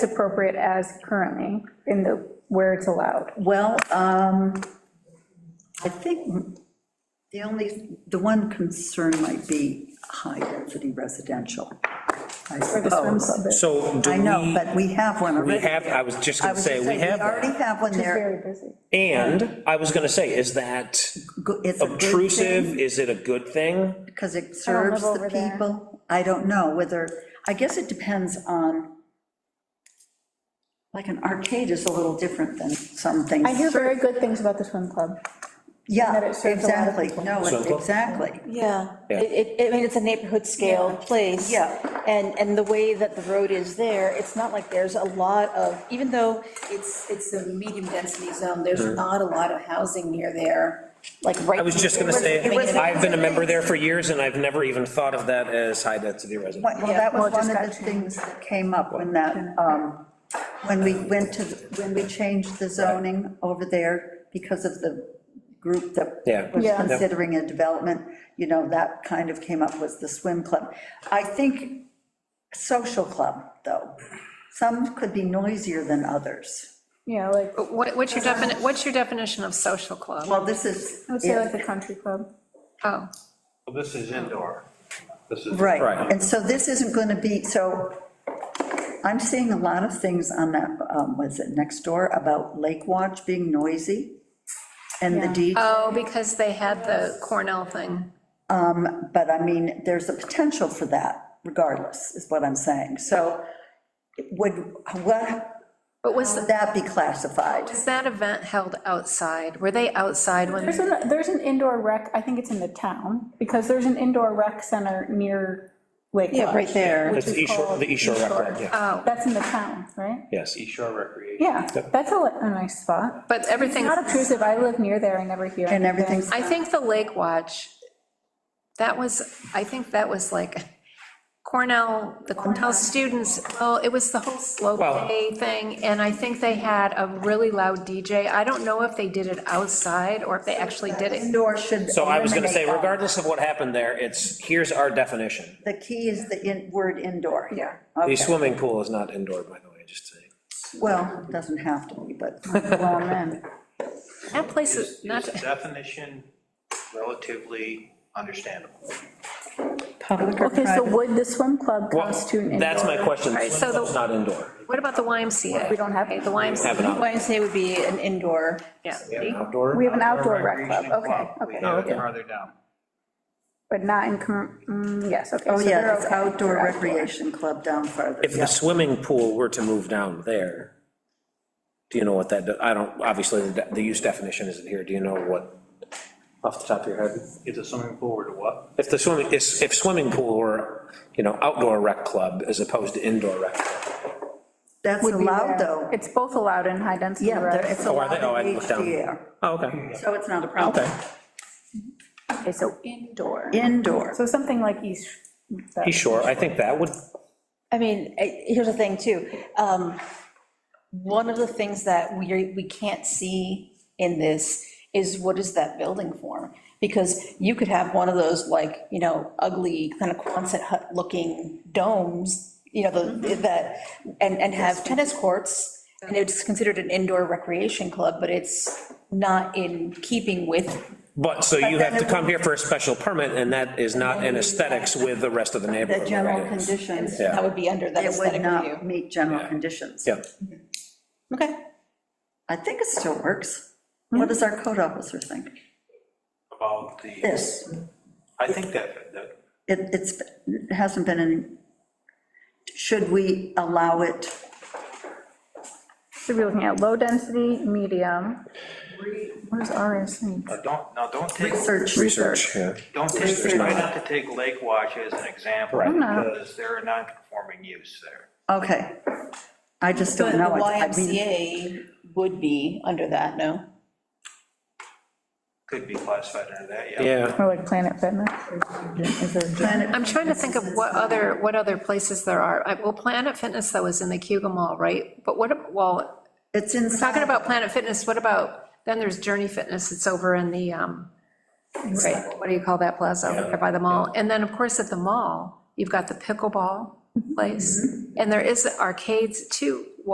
appropriate as currently in the, where it's allowed. Well, um, I think the only, the one concern might be high-density residential, I For the swim suppose. club, it's So do I know, we, but we have one we already. have, I was just I gonna was say, gonna we have, that. already have one there. very busy. and I was gonna say, is that Go- It's a good obtrusive? Is it a good thing? because it don't live serves the over there. people. I don't know whether, I guess it depends on, like, an arcade is a little different than some things. I hear very good things about the swim club. Yeah, that it serves a lot of exactly, people. no, So- exactly. Yeah, Yeah. it, it, I mean, it's a neighborhood scale place. Yeah. And, and the way that the road is there, it's not like there's a lot of, even though it's, it's a medium density zone, there's not a lot of housing near there, like right. Mm-hmm. I was just gonna say, I've been a member there for years, and I've never even thought of that as high-density residential. Well, that was one of the things that came up when that, um, when we went to, when we changed the zoning over there because of the group Yeah. that was Yeah. considering a development, you know, that kind of came up was the swim club. I think social club, though, some could be noisier than others. Yeah, like, I What, what's your defini, what's your definition of social club? Well, this is, would say like the country club. Oh, Well, this is indoor. This is. right, Right. and so this isn't going to be, so I'm seeing a lot of things on that, um, was it next door, about Lake Watch being noisy and the DJ. oh, because they had the Cornell thing. But I mean, there's a potential for that regardless, is what I'm saying. So would, what, But was, would that be classified? was that event held outside? Were they outside when, There's an, there's an indoor rec, I think it's in the town, because there's an indoor rec center near Lake Yeah, right Lodge. there. That's the East Shore, the East Shore Rec Club, yeah, That's in the town, right? yes. East Shore Recreation. Yeah, that's a, li- a nice spot. but everything, Not obtrusive, I live near there, I never hear. And anything. everything's, I think the Lake Watch, that was, I think that was like Cornell, the Cornell students, well, it was the whole slow Well- play thing, and I think they had a really loud DJ. I don't know if they did it outside or if they actually did it. indoor should. So I was gonna say, eliminate that. regardless of what happened there, it's, here's our definition. The key is the in- word indoor. Yeah. The Okay. swimming pool is not indoor, by the way, just saying. Well, it doesn't have to be, but Well, man. That place Is is is not. the definition relatively understandable? public or Okay, so private. would the swim club Well, constitute an indoor? that's my question, Right, so swim the- club's not indoor. What about the YMCA? We don't have- Okay, The YMCA, Have an out- Why I say would be an indoor. yeah. We outdoor, have an outdoor rec club, Recreation okay, club. We okay, have it farther down. but not in, comm- mm, yes, okay. Oh, so yeah, they're it's okay. outdoor They're recreation club down farther. if the swimming pool were to move down there, do you know what that, I don't, obviously, the the use definition isn't here, do you know what, off the top of your head? If the swimming pool were to what? If the swimming, if if swimming pool were, you know, outdoor rec club as opposed to indoor rec. club. That's would be allowed, there. though. It's both allowed in high density. Yeah, there- it's Oh, are they? allowed Oh, I in looked down. HDR, Oh, okay, so it's not a problem. okay. Okay, so indoor. Indoor. So something like East. that- He's sure, I think that would, I mean, I- here's the thing, too. Um, One of the things that we, we can't see in this is what is that building form? Because you could have one of those, like, you know, ugly, kind of Quonset hut-looking domes, you know, the- Mm-hmm. that, and, and have tennis courts, and it's considered an indoor recreation club, but it's not in keeping with, but, so you have to come here for a special permit, and that is not in aesthetics with the rest of the neighborhood. The general right? conditions. that would be under that It would aesthetic not review. meet general conditions. Yeah, Okay. I think it still works. What does our code officer think? About the, This, I think that, that, it, it's, it hasn't been in, should we allow it? Should be looking at low density, medium. What is RSC? now uh, don't, now don't take, Research. research, yeah. don't take, There's try not. not to take Lake Watch as an example, Right. No. because they're a non-conforming use there. Okay. I just don't But the know. I- I mean, YMCA would be under that, no? Could be classified under that, yeah. Yeah, Or like Planet Fitness? Is there a gym? Planet- I'm trying to think of what other, what other places there are. I- Well, Planet Fitness, though, is in the Cuba Mall, right? But what, ab- well, It's inside. talking about Planet Fitness, what about, then there's Journey Fitness, it's over in the, um, right, what do you call that plaza, over there by the mall? And then, of course, Mm-hmm. at the mall, you've got the pickleball place, and there is arcades too.